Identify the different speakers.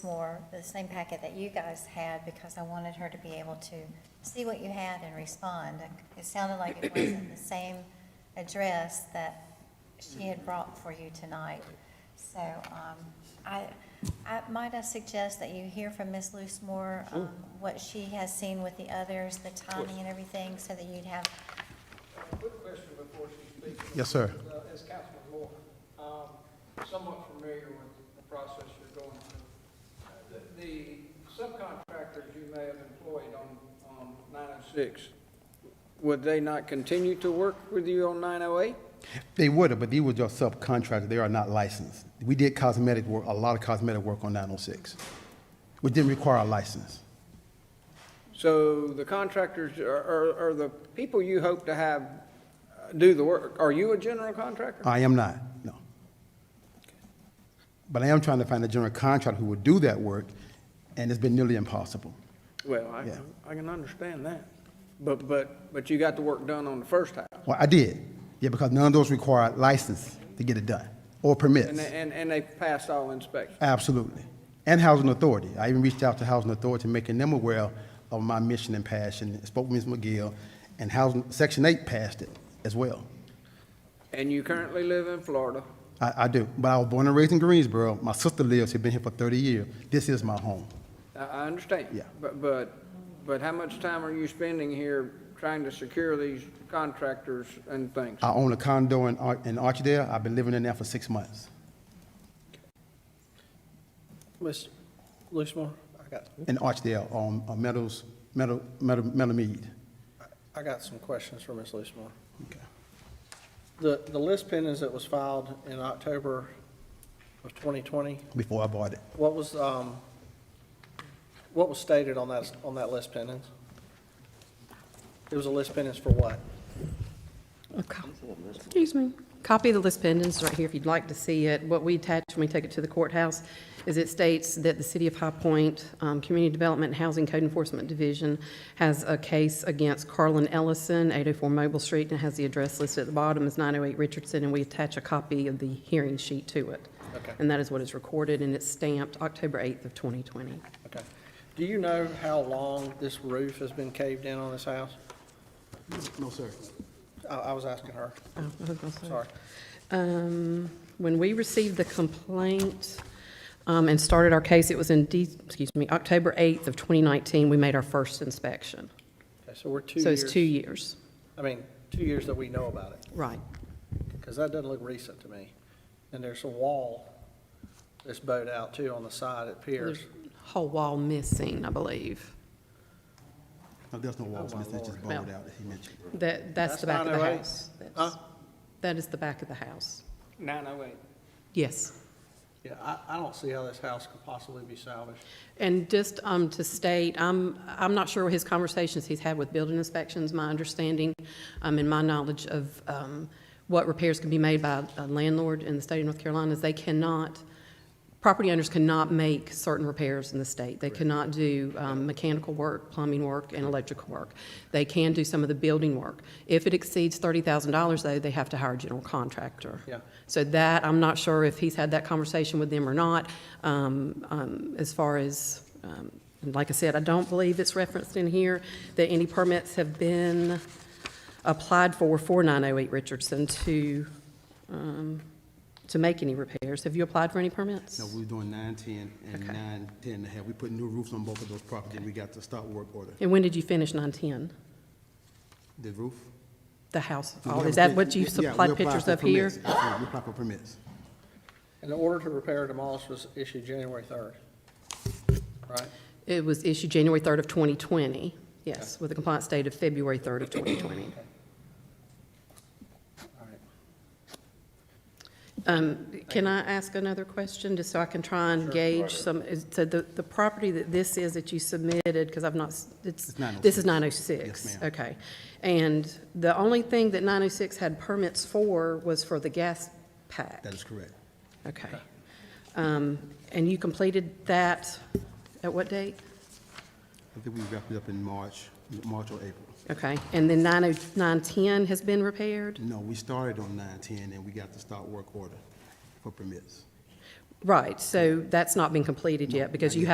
Speaker 1: more, the same packet that you guys had, because I wanted her to be able to see what you had and respond. It sounded like it wasn't the same address that she had brought for you tonight. So, um, I, I, might I suggest that you hear from Ms. Luce more, um, what she has seen with the others, the timing and everything, so that you'd have,
Speaker 2: Quick question before she speaks.
Speaker 3: Yes, sir.
Speaker 2: Uh, As Councilman Moore, um, somewhat familiar with the process you're going through. Uh, the- The subcontractors you may have employed on, on 906, would they not continue to work with you on 908?
Speaker 3: They would have, but these were just subcontractors. They are not licensed. We did cosmetic work, a lot of cosmetic work on 906, which didn't require a license.
Speaker 2: So the contractors are- are, are the people you hope to have uh, do the work. Are you a general contractor?
Speaker 3: I am not, no. But I am trying to find a general contractor who would do that work, and it's been nearly impossible.
Speaker 2: Well, I,
Speaker 3: Yeah.
Speaker 2: I can understand that. But, but, but you got the work done on the first half.
Speaker 3: Well, I did, yeah, because none of those require a license to get it done, or
Speaker 2: And,
Speaker 3: permits.
Speaker 2: they- and, and they passed all inspections.
Speaker 3: Absolutely. And Housing Authority. I even reached out to Housing Authority, making them aware of my mission and passion, spoke with Ms. McGill, and Housing, Section 8 passed it as well.
Speaker 2: And you currently live in Florida.
Speaker 3: I, I do, but I was born and raised in Greensboro. My sister lives here, been here for 30 years. This is my home.
Speaker 2: I, I understand.
Speaker 3: Yeah.
Speaker 2: But, but, but how much time are you spending here trying to secure these contractors and things?
Speaker 3: I own a condo in, Ar- in Archdale. I've been living in there for six months.
Speaker 4: Ms. Lucemoore, I got,
Speaker 3: In Archdale, on on Meadows, Meadow, Meadow, Meadow Mead.
Speaker 4: I got some questions for Ms. Lucemoore.
Speaker 3: Okay.
Speaker 4: The, the list pendants that was filed in October of 2020,
Speaker 3: Before I bought it.
Speaker 4: what was, um, what was stated on that, on that list pendants? It was a list pendants for what?
Speaker 5: A co- Excuse me. Copy of the list pendants right here if you'd like to see it. What we attach when we take it to the courthouse is it states that the City of High Point um, Community Development and Housing Code Enforcement Division has a case against Carlin Ellison, 804 Mobile Street, and it has the address listed at the bottom as 908 Richardson, and we attach a copy of the hearing sheet to it.
Speaker 4: Okay.
Speaker 5: And that is what is recorded, and it's stamped October 8th of 2020.
Speaker 4: Okay. Do you know how long this roof has been caved in on this house?
Speaker 3: No, sir.
Speaker 4: I, I was asking her,
Speaker 5: Oh, I was gonna say.
Speaker 4: sorry.
Speaker 5: Um, When we received the complaint um, and started our case, it was in, De- excuse me, October 8th of 2019, we made our first inspection.
Speaker 4: Okay, so we're two
Speaker 5: So
Speaker 4: years.
Speaker 5: it's two years.
Speaker 4: I mean, two years that we know about it.
Speaker 5: Right.
Speaker 4: Because that doesn't look recent to me. And there's a wall that's bowed out too on the side at Pierce.
Speaker 5: There's a Whole wall missing, I believe.
Speaker 3: No, there's no walls,
Speaker 4: Oh, my
Speaker 3: Mr. It's just
Speaker 5: Lord.
Speaker 3: bowled out, as he mentioned.
Speaker 5: That, that's
Speaker 4: That's
Speaker 5: the back of the
Speaker 4: 908?
Speaker 5: house. That's-
Speaker 4: Huh?
Speaker 5: That is the back of the house.
Speaker 2: 908.
Speaker 5: Yes.
Speaker 4: Yeah, I, I don't see how this house could possibly be salvaged.
Speaker 5: And just um, to state, I'm, I'm not sure what his conversations he's had with building inspections. My understanding um, and my knowledge of um, what repairs can be made by a landlord in the state of North Carolina is they cannot, property owners cannot make certain repairs in the state. They cannot do um, mechanical work, plumbing work, and electrical work. They can do some of the building work. If it exceeds $30,000, though, they have to hire a general contractor.
Speaker 4: Yeah.
Speaker 5: So that, I'm not sure if he's had that conversation with them or not, um, um, as far as, um, and like I said, I don't believe it's referenced in here that any permits have been applied for for 908 Richardson to, um, to make any repairs. Have you applied for any permits?
Speaker 3: No, we were doing nine, ten, and
Speaker 5: Okay.
Speaker 3: nine, ten and a half. We put new roofs on both of those properties. We got the stop work order.
Speaker 5: And when did you finish 910?
Speaker 3: The roof?
Speaker 5: The house?
Speaker 3: We
Speaker 5: Oh,
Speaker 3: have a
Speaker 5: Is that
Speaker 3: pit-
Speaker 5: what you
Speaker 3: yeah, we
Speaker 5: supplied
Speaker 3: apply
Speaker 5: pictures
Speaker 3: for
Speaker 5: of here?
Speaker 3: permits. Yeah, We apply for permits.
Speaker 4: And the order to repair or demolish was issued January third, right?
Speaker 5: It was issued January 3rd of 2020, yes, with a compliance date of February 3rd of 2020.
Speaker 4: All right.
Speaker 5: Um, Can I ask another question, just so I can try and gauge some, is- so the, the property that this is that you submitted, because I've not, s- it's,
Speaker 3: It's 906.
Speaker 5: this is 906?
Speaker 3: Yes, ma'am.
Speaker 5: Okay. And the only thing that 906 had permits for was for the gas pack?
Speaker 3: That is correct.
Speaker 5: Okay. Um, And you completed that at what date?
Speaker 3: I think we wrapped it up in March, March or April.
Speaker 5: Okay. And then 90 910 has been repaired?
Speaker 3: No, we started on nine ten and we got the stop work order for permits.
Speaker 5: Right, so that's not been completed yet because you have